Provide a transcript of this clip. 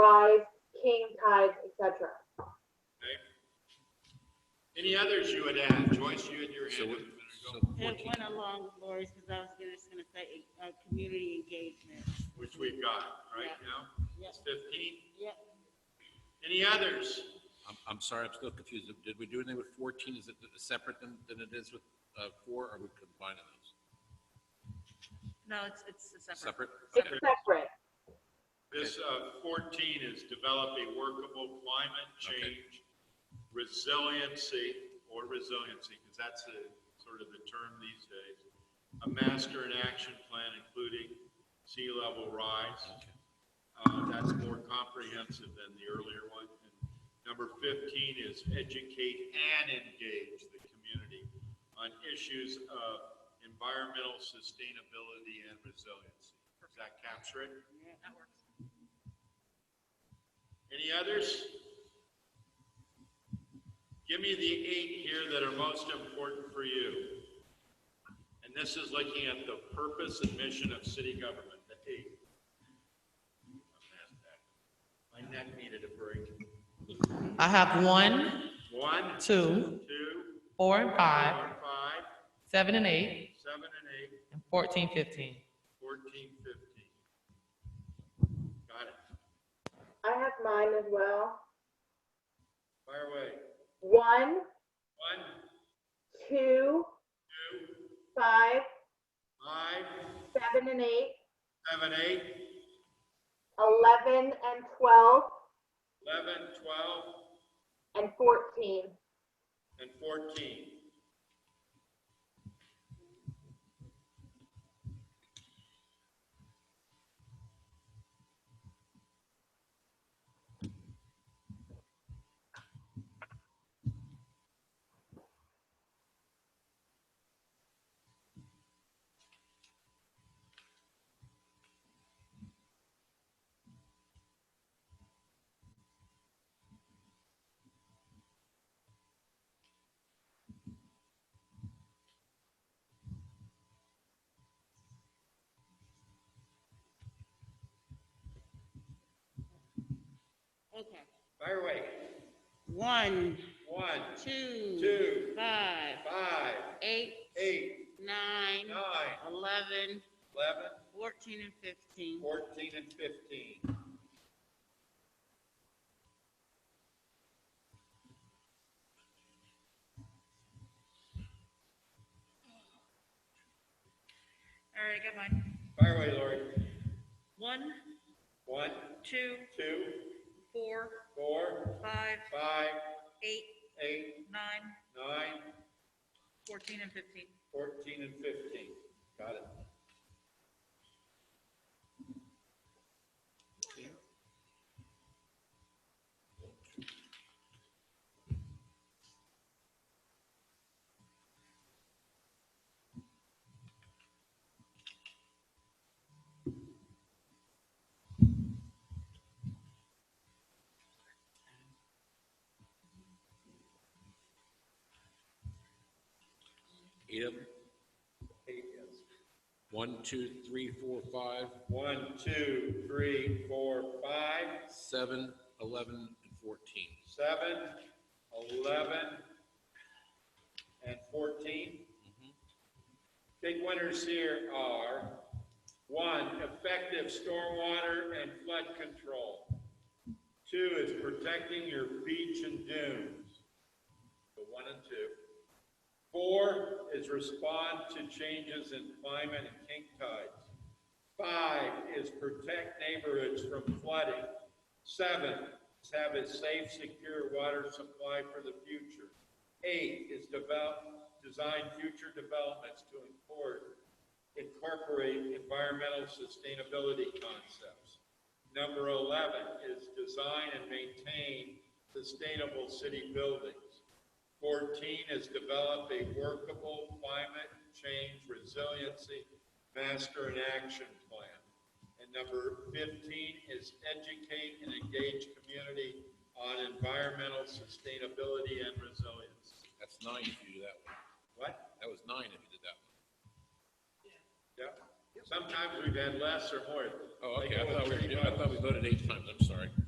rise, king, tides, etc. Any others you would add? Joyce, you had your So hand up a what- minute so ago, And 14, one along with Lori's, because I was gonna- just gonna say, uh, community engagement. which we've got right Yeah. now. Yep, It's 15. yep. Any others? I'm, I'm sorry, I'm still confused. Did we do anything with 14? Is it separate than, than it is with uh, 4, or are we combining those? No, it's, it's a separate. Separate? It's Okay. separate. This uh, 14 is develop a workable climate Okay. change resiliency, or resiliency, because that's the sort of the term these days. A master and action plan including sea level rise. Uh, That's more comprehensive than the earlier one. And Number 15 is educate and engage the community on issues of environmental sustainability and resiliency. Does that capture it? Yeah, that works. Any others? Give me the eight here that are most important for you. And this is looking at the purpose and mission of city government, the eight. My neck needed a break. I have one, One, two, two, four and four, five, five, seven and eight, seven and eight, and fourteen, fifteen. fourteen, fifteen. Got it. I have mine as well. Fire away. One, One, two, two, five, five, seven, and eight, seven, eight, eleven and twelve, 11, 12, and fourteen. and 14. Okay. Fire away. One, One, two, two, five, five, eight, eight, nine, nine, eleven, 11, fourteen, and fifteen. 14, and 15. All right, I got mine. Fire away, Lori. One, One, two, two, four, four, five, five, eight, eight, nine, nine, fourteen, and fifteen. 14, and 15. Got it. Eight of them? Eight, yes. One, two, three, four, five, One, two, three, four, five, seven, 11, and 14. seven, 11, and 14. Big winners here are, one, effective stormwater and flood control. Two is protecting your beach and dunes, the one and two. Four is respond to changes in climate and king tides. Five is protect neighborhoods from flooding. Seven is have a safe, secure water supply for the future. Eight is develop, design future developments to import, incorporate environmental sustainability concepts. Number 11 is design and maintain sustainable city buildings. 14 is develop a workable climate change resiliency master and action plan. And number 15 is educate and engage community on environmental sustainability and resilience. That's nine if you do that one. What? That was nine if you did that one. Yep. Sometimes we've had less or more. Oh, They okay, I go thought with we, were three doing- Oh, I votes. thought we voted eight times, I'm sorry.